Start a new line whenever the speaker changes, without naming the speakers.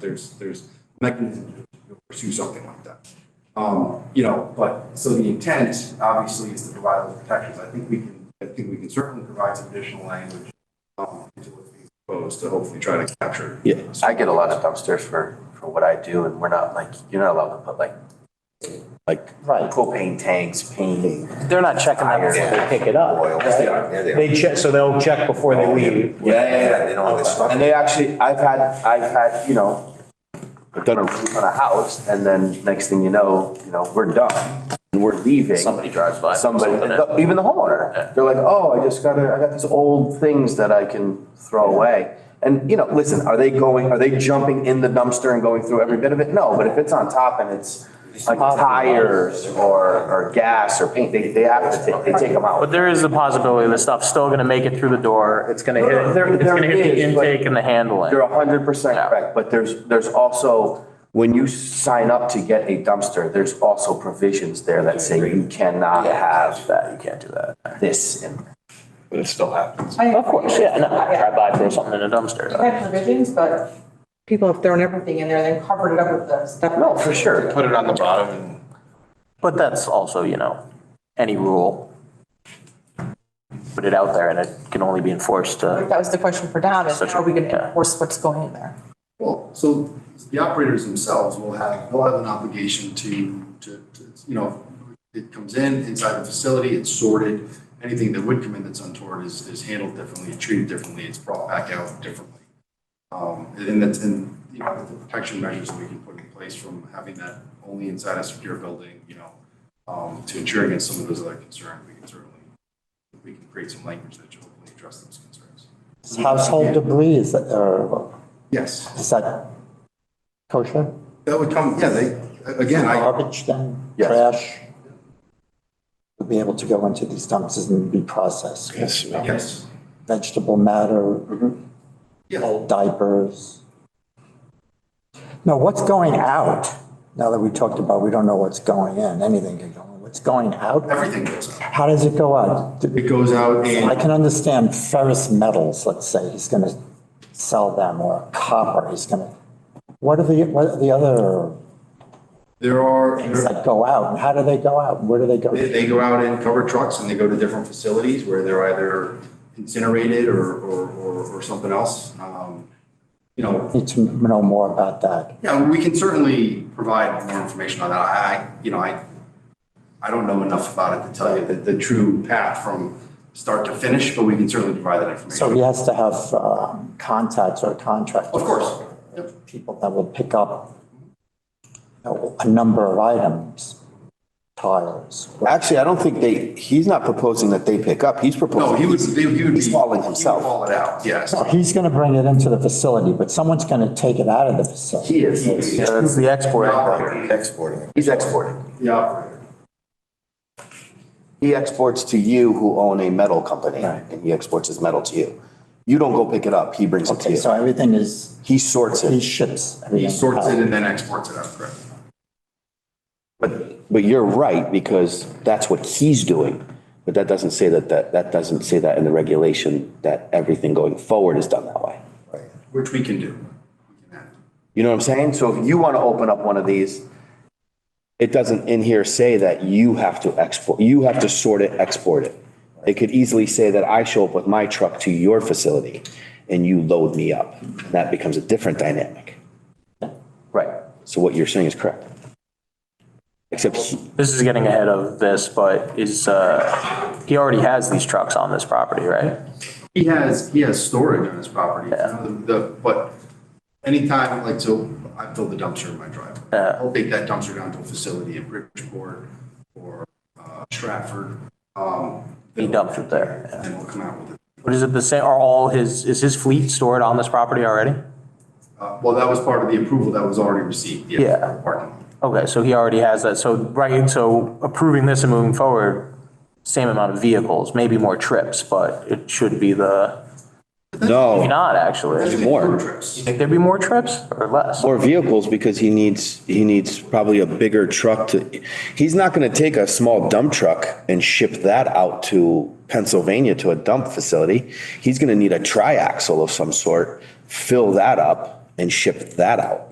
there's, there's mechanisms to pursue something like that. Um, you know, but, so the intent, obviously, is to provide those protections, I think we can, I think we can certainly provide some additional language um, into what's being proposed to hopefully try to capture.
Yeah.
I get a lot of dumpsters for, for what I do and we're not like, you're not allowed to put like, like
Right.
propane tanks, paint.
They're not checking that before they pick it up.
Oil.
right?
Yeah, they are.
They check, so they'll check before they leave.
Yeah, yeah,
Yeah, they don't have this stuff.
And they actually, I've had, I've had, you know, done a roof on a house and then next thing you know, you know, we're done. And we're leaving.
Somebody drives by.
Somebody, even the homeowner, they're like, oh, I just gotta, I got these old things that I can throw away. And, you know, listen, are they going, are they jumping in the dumpster and going through every bit of it? No, but if it's on top and it's like tires or, or gas or paint, they, they have to, take- they take them out.
But there is the possibility the stuff's still gonna make it through the door. It's gonna hit,
No, no, there-
it's gonna hit the
there is, but-
intake and the
You're
handling.
hundred percent
Yeah.
correct, but there's, there's also, when you sign up to get a dumpster, there's also provisions there that say you cannot have that. You can't do that. This and
But it still happens.
Of course, yeah, no, I drive by, throw something in a
We've
dumpster.
had provisions, but people have thrown everything in there, then covered it up with the stuff.
No, for sure.
Put it on the bottom and.
But that's also, you know, any rule. Put it out there and it can only be enforced uh, to.
That was the question for Don, is
Such a-
how are we going
yeah.
to enforce what's going in there?
Well, so the operators themselves will have, will have an obligation to, to, to, you know, it comes in inside the facility, it's sorted. Anything that would come in that's untoward is, is handled differently, treated differently, it's brought back out differently. Um, and that's, and, you know, the protection measures that we can put in place from having that only inside a secure building, you know, um, to ensure against some of those other concerns, we can certainly, we can create some language that should hopefully address those concerns.
Household debris is, uh,
Yes.
is that kosher?
That would come, yeah, they, again, I,
Garbage then,
Yes.
trash? Would be able to go into these dumpsters and be processed.
yes, Mm-hmm.
Vegetable matter,
yeah,
old diapers. No, what's going out? Now that we talked about, we don't know what's going in, anything can go in. What's going out?
everything goes out.
How does it go out? Do-
It goes out
I
and,
can understand ferrous metals, let's say, he's going to sell them, or copper, he's going to. What are the, what are the other
there are,
things that go out, and how do they go out, and where do they go?
they, they go out in covered trucks and they go to different facilities where they're either incinerated or, or, or, or something else. Um, You know,
Need to know more about that.
yeah, we can certainly provide more information on that. I, I- you know, I, I don't know enough about it to tell you the, the true path from start to finish, but we can certainly provide that
So
information.
he has to have um, contacts or contractors.
Of course. Yep.
People that will pick up you know, a number of items, tires.
Actually, I don't think they, he's not proposing that they pick up. He's proposing.
No, he would, he would be.
He's hauling
He
himself.
would haul it out, yes.
So He's going to bring it into the facility, but someone's going to take it out of the facility.
he is,
Yeah, that's the export.
Exporting it.
he's exporting.
The operator.
He exports to you who own a metal company and he exports his metal to you. You don't go pick it up. He brings it to
Okay,
you.
so everything is,
He sorts
he
it,
ships.
He
everything
sorts
out.
it and then exports it out, correct?
but, but you're right because that's what he's doing. But that doesn't say that, that, that doesn't say that in the regulation that everything going forward is done that way.
Which we can do. We can add.
You know what I'm saying? So if you want to open up one of these, it doesn't in here say that you have to export, you have to sort it, export it. It could easily say that I show up with my truck to your facility and you load me up. That becomes a different dynamic.
Right.
So what you're saying is correct. Except he-
This is getting ahead of this, but is, uh, he already has these trucks on this property, right?
He has, he has storage on his property, you know, the, the- but anytime, like, so I fill the dumpster in my driveway.
Yeah.
I'll take that dumpster down to a facility in Bridgeport or uh, Stratford. um,
He dumps it there, yeah.
And we'll come out with it.
But is it the same, are all his, is his fleet stored on this property already?
Uh, Well, that was part of the approval that was already received.
Yeah.
Parking lot.
Okay, so he already has that, so, right, so approving this and moving forward, same amount of vehicles, maybe more trips, but it should be the, maybe
no,
not actually.
more,
Road trips.
Think there'd be more trips or less?
more vehicles because he needs, he needs probably a bigger truck to, he's not going to take a small dump truck and ship that out to Pennsylvania to a dump facility. He's going to need a triaxle of some sort, fill that up and ship that out.